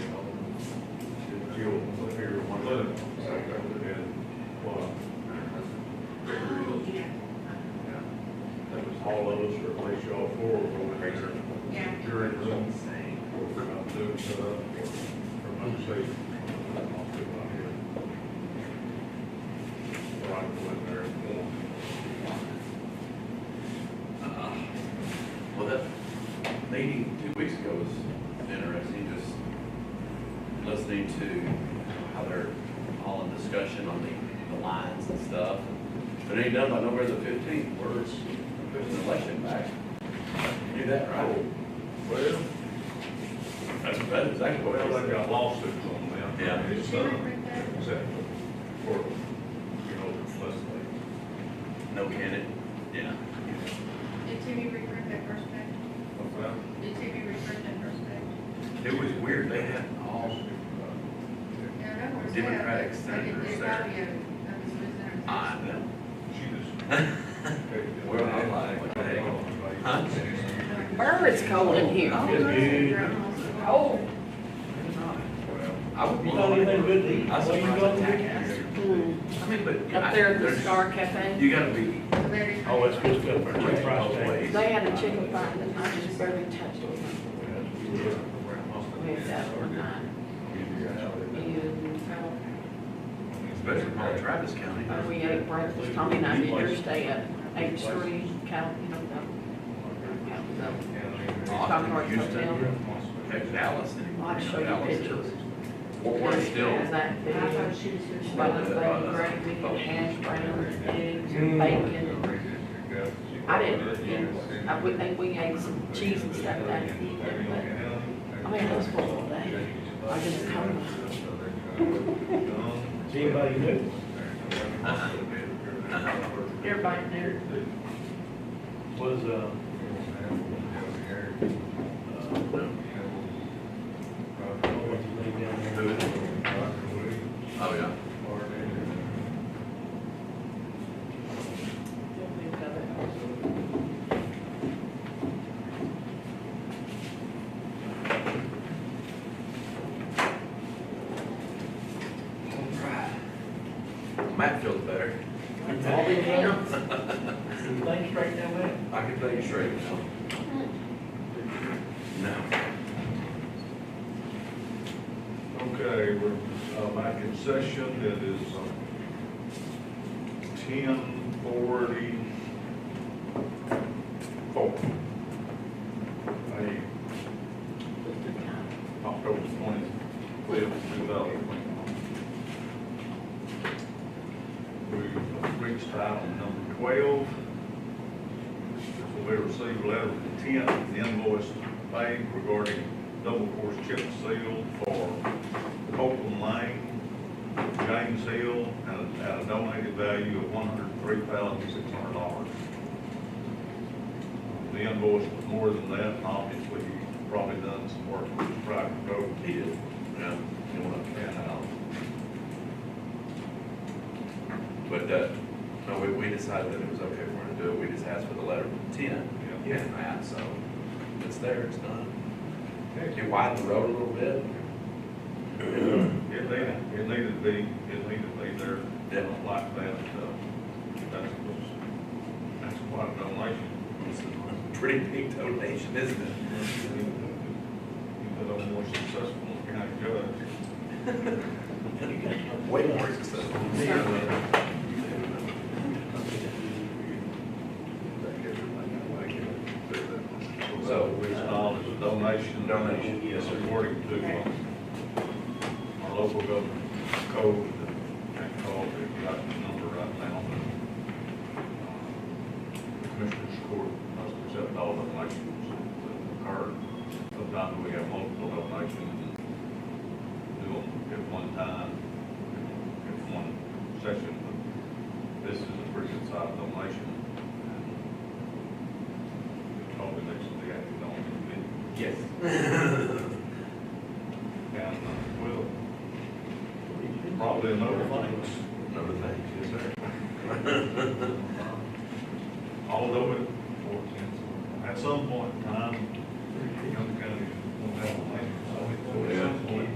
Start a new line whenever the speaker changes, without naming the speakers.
y'all forward on here
Yeah.
during the thing, or if I'm doing it up, or from upstate, I'll do it out here. Or I can go in there and
Uh, Well, that lady two weeks ago was interesting, just listening to how they're all in discussion on the, the lines and stuff. But it ain't done by November the fifteenth, we're, there's an election back. You knew that, right?
Well,
That's, that's exactly what
well,
I
they've
said.
got lawsuits on them.
Yeah.
It's,
She
uh,
went with
except for, you know, the less like,
No candidate, yeah.
that. Did Timmy reprint that first page?
what's that?
Did Timmy reprint that first page?
It was weird, they had all,
Yeah, that was.
Democratic
I
senators
did,
there.
I did, I was listening.
I know.
She just.
Well, I like- what the heck? Huh?
Burr, it's cold in here. Oh,
I would.
You got anything good to eat?
I was
What you
surprised
got
at
to
Tack
eat?
Ass.
mm,
I mean, but. yeah,
up there at the
there's-
Star Cafe.
You gotta be
Oh, it's good stuff, our chicken fried steak.
always.
They had a chicken fry that I just barely touched it. We had that overnight. And
Especially from Travis County.
uh, we ate breakfast, Tommy and I did yours day at eight thirty, Cal, you know, the,
Austin, Houston, heck, Dallas.
I'll have to show you
Dallas is-
pictures.
We're we're still.
Has that big, like, gravy, hash browns, eggs, and bacon. I didn't, eat- I, we, they- we ate some cheese and stuff that evening, but I mean, it was full all day. I just come.
Is anybody new?
Everybody there.
Was, uh, uh, what's his name uh, down there?
Oh, yeah. Matt feels better.
All them hands? Some things straight down there?
I can tell you straight now. No.
Okay, we're uh, back in session. It is uh, ten forty-four. A October twenty-fifth, two thousand twenty-one. We've reached item number twelve. We received a letter of intent and invoice paid regarding double course chip seal for Copeland Lane, James Hill, at a- at a donated value of one hundred three thousand six hundred dollars. The invoice was more than that, and obviously, he's probably done some work with his private road.
He did. No. You know what?
And, uh,
But, uh, no, we, we decided that it was okay for him to do it, we just asked for the letter of intent.
Yeah.
And that, so, it's there, it's done. You widen the road a little bit.
It needed, it needed to be, it needed to be there, didn't like that, so that's, that's quite a donation.
It's a Pretty big donation, isn't it?
Even though more successful, you're not good.
Way more successful. than me, but-
So we installed as a donation.
Donation, yes, sir.
According to uh, our local government code, that I called, I've got the number right now, but uh, Commissioner's Court must accept all donations that occur. Sometimes we have multiple donations and do them at one time, at one session, but this is a pretty good sized donation. and uh, Probably next to the acting on the bid.
Yes.
And uh, we'll probably another thing,
Another thing, yes, sir.
although it, at some point in time,